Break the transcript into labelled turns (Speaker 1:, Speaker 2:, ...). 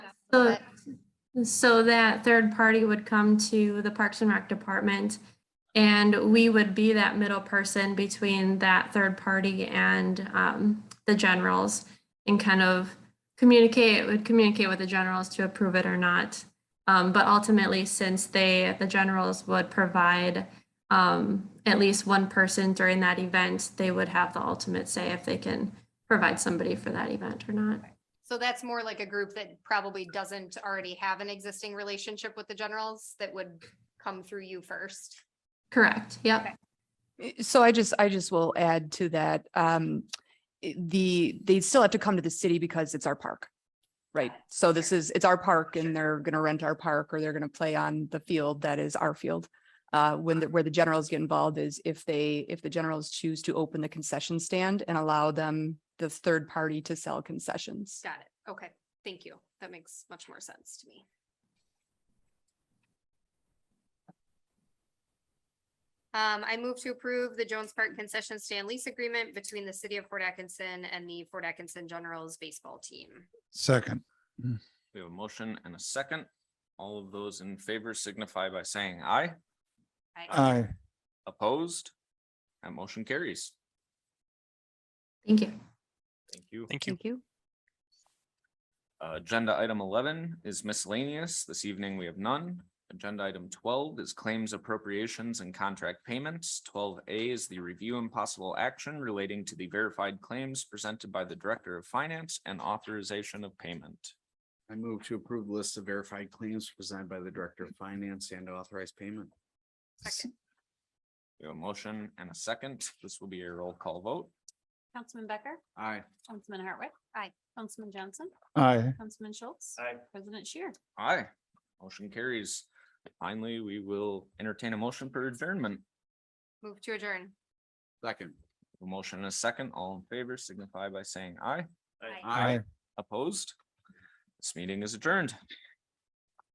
Speaker 1: So, so that third party would come to the Parks and Rec Department and we would be that middle person between that third party and um, the generals and kind of communicate, would communicate with the generals to approve it or not. Um, But ultimately, since they, the generals would provide um, at least one person during that event, they would have the ultimate say if they can provide somebody for that event or not.
Speaker 2: So that's more like a group that probably doesn't already have an existing relationship with the generals that would come through you first.
Speaker 1: Correct, yep.
Speaker 3: Y- So I just, I just will add to that, um, i- the, they still have to come to the city because it's our park. Right? So this is, it's our park and they're gonna rent our park or they're gonna play on the field that is our field. Uh, when, the- where the generals get involved is if they, if the generals choose to open the concession stand and allow them, the third party to sell concessions.
Speaker 2: Got it. Okay, thank you. That makes much more sense to me. Um, I move to approve the Jones Park concession stand lease agreement between the city of Fort Atkinson and the Fort Atkinson Generals baseball team.
Speaker 4: Second,
Speaker 5: We have a motion and a second. All of those in favor signify by saying aye.
Speaker 4: aye,
Speaker 5: Opposed? That motion carries.
Speaker 1: Thank you.
Speaker 5: Thank you.
Speaker 6: Thank you.
Speaker 3: you.
Speaker 5: Uh, Agenda item eleven is miscellaneous. This evening, we have none. Agenda item twelve is claims appropriations and contract payments. Twelve A is the review and possible action relating to the verified claims presented by the Director of Finance and authorization of payment.
Speaker 7: I move to approve the list of verified claims presented by the Director of Finance and authorized payment.
Speaker 2: Second.
Speaker 5: We have a motion and a second. This will be a roll call vote.
Speaker 8: Councilman Becker,
Speaker 7: Aye.
Speaker 8: Councilman Hartwick.
Speaker 2: Aye.
Speaker 8: Councilman Johnson,
Speaker 4: aye,
Speaker 8: Councilman Schultz.
Speaker 7: Aye.
Speaker 8: President Shear.
Speaker 5: Aye. Motion carries. Finally, we will entertain a motion for adjournment.
Speaker 2: Move to adjourn.
Speaker 7: Second.
Speaker 5: A motion and a second. All in favor signify by saying aye.
Speaker 7: Aye.
Speaker 5: Opposed? This meeting is adjourned.